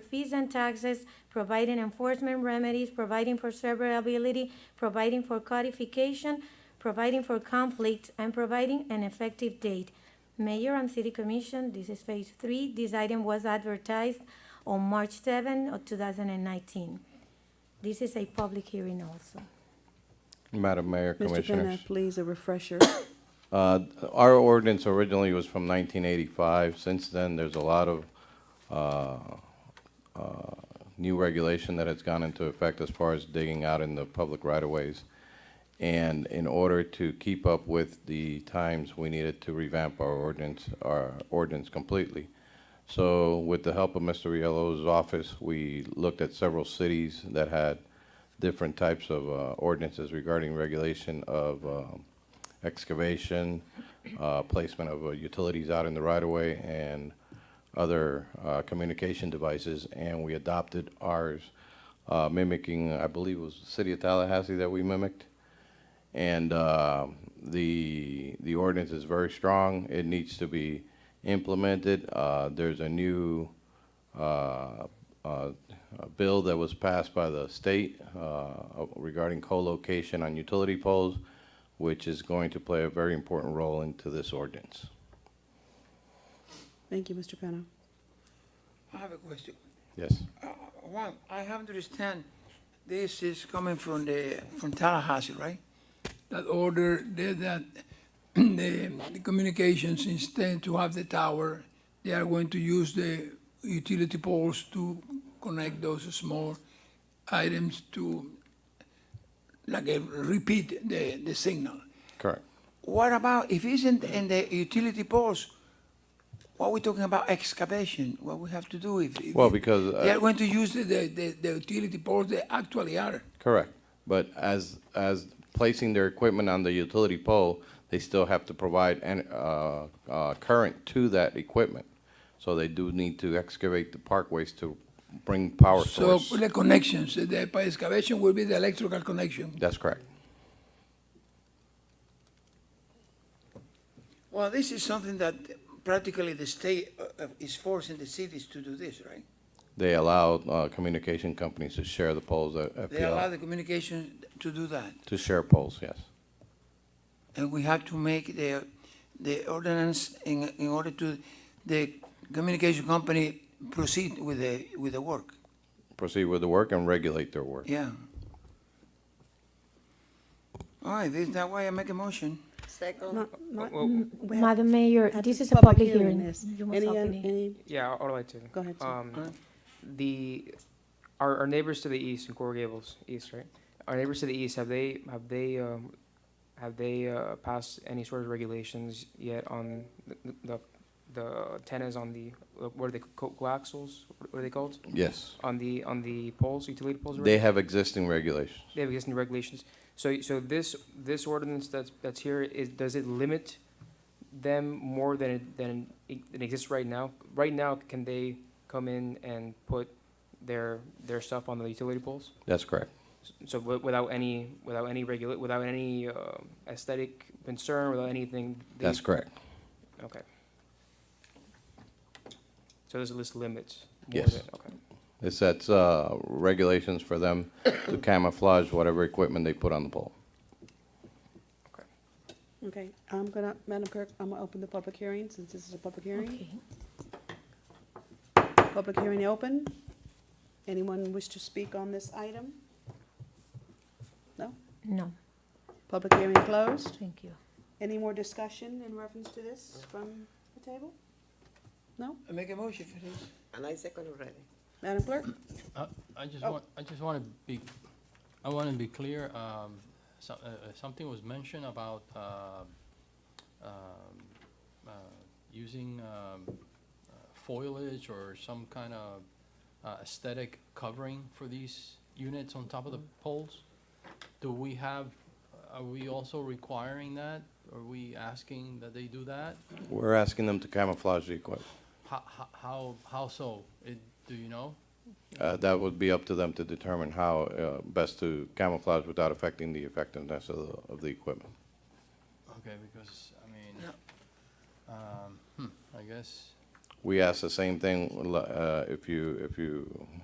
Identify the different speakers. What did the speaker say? Speaker 1: fees and taxes, providing enforcement remedies, providing for severability, providing for codification, providing for conflict, and providing an effective date. Mayor and City Commission, this is phase three. This item was advertised on March 7 of 2019. This is a public hearing also.
Speaker 2: Madam Mayor,
Speaker 3: Mr. Penna,
Speaker 2: Commissioners.
Speaker 3: please, a refresher.
Speaker 2: Uh, Our ordinance originally was from 1985. Since then, there's a lot of uh, uh, new regulation that has gone into effect as far as digging out in the public right-of-ways. And in order to keep up with the times, we needed to revamp our ordinance, our ordinance completely. So with the help of Mr. Riello's office, we looked at several cities that had different types of uh, ordinances regarding regulation of um, excavation, uh, placement of uh, utilities out in the right-of-way, and other uh, communication devices, and we adopted ours uh, mimicking, I believe it was the city of Tallahassee that we mimicked. And uh, the, the ordinance is very strong. It needs to be implemented. Uh, There's a new uh, uh, a bill that was passed by the state uh, regarding co-location on utility poles, which is going to play a very important role into this ordinance.
Speaker 3: Thank you, Mr. Penna.
Speaker 4: I have a question.
Speaker 2: Yes.
Speaker 4: Uh, One, I have to understand, this is coming from the, from Tallahassee, right?
Speaker 5: that order, they- that the the communications, instead to have the tower, they are going to use the utility poles to connect those small items to, like, eh, repeat the, the signal.
Speaker 2: Correct.
Speaker 4: What about, if isn't in the utility poles, what we talking about excavation, what we have to do if? if-
Speaker 2: Well, because, uh,
Speaker 4: Yeah,
Speaker 5: They are going to use the, the, the- the utility poles they actually are.
Speaker 2: Correct. But as, as placing their equipment on the utility pole, they still have to provide an, uh, uh, current to that equipment. So they do need to excavate the parkways to bring power
Speaker 5: So
Speaker 2: source.
Speaker 5: the connections, uh, the excavation will be the electrical connection.
Speaker 2: That's correct.
Speaker 4: Well, this is something that practically the state uh, uh, is forcing the cities to do this, right?
Speaker 2: They allow, uh, communication companies to share the poles at
Speaker 4: They allow
Speaker 2: FPL,
Speaker 4: the communication to do that,
Speaker 2: to share poles, yes.
Speaker 4: and we have to make the, the ordinance in, in order to, the communication company proceed with the, with the work.
Speaker 2: Proceed with the work and regulate their work.
Speaker 4: Yeah. All right, this, that way I make a motion.
Speaker 6: Second,
Speaker 3: Ma- ma-
Speaker 7: well,
Speaker 3: we have-
Speaker 1: Madam Mayor,
Speaker 3: have
Speaker 1: this
Speaker 3: to-
Speaker 1: is a public hearing.
Speaker 3: yes.
Speaker 1: You must
Speaker 3: Any,
Speaker 1: open it.
Speaker 3: any,
Speaker 7: Yeah, all the way to.
Speaker 3: go ahead, sir.
Speaker 7: Um, the, our, our neighbors to the east in Coral Gables, east, right? Our neighbors to the east, have they, have they, um, have they, uh, passed any sort of regulations yet on the, the, the antennas on the, what are they, co- coaxials, what are they called?
Speaker 2: Yes.
Speaker 7: On the, on the poles, utility poles? right?
Speaker 2: They have existing regulations.
Speaker 7: They have existing regulations. So, so this, this ordinance that's, that's here, is, does it limit them more than, it- than it than exists right now? Right now, can they come in and put their, their stuff on the utility poles?
Speaker 2: That's correct.
Speaker 7: So wi- without any, without any regula, without any um, aesthetic concern, without anything? they-
Speaker 2: That's correct.
Speaker 7: Okay. So there's a list of limits? more
Speaker 2: Yes.
Speaker 7: than- Okay.
Speaker 2: It sets uh, regulations for them to camouflage whatever equipment they put on the pole.
Speaker 3: Okay, I'm gonna, Madam Clerk, I'm gonna open the public hearing, since this is a public hearing.
Speaker 1: Okay.
Speaker 3: Public hearing open. Anyone wish to speak on this item? No?
Speaker 1: No,
Speaker 3: Public hearing closed.
Speaker 1: thank you.
Speaker 3: Any more discussion in reference to this from the table? No?
Speaker 4: I make a motion for this.
Speaker 6: and I second already.
Speaker 3: Madam Clerk?
Speaker 8: I I just
Speaker 3: Oh.
Speaker 8: want, I just want to be, I want to be clear, um, so- uh, uh, something was mentioned about um, um, uh, using um, uh, foliage or some kind of uh, aesthetic covering for these units on top of the poles? Do we have, are we also requiring that? Are we asking that they do that?
Speaker 2: We're asking them to camouflage the equipment.
Speaker 8: How, how- how, how so? It- Do you know?
Speaker 2: Uh, That would be up to them to determine how uh, best to camouflage without affecting the effectiveness of the, of the equipment.
Speaker 8: Okay, because, I mean,
Speaker 4: No.
Speaker 8: um, hmm, I guess,
Speaker 2: we asked the same thing, uh, if you, if you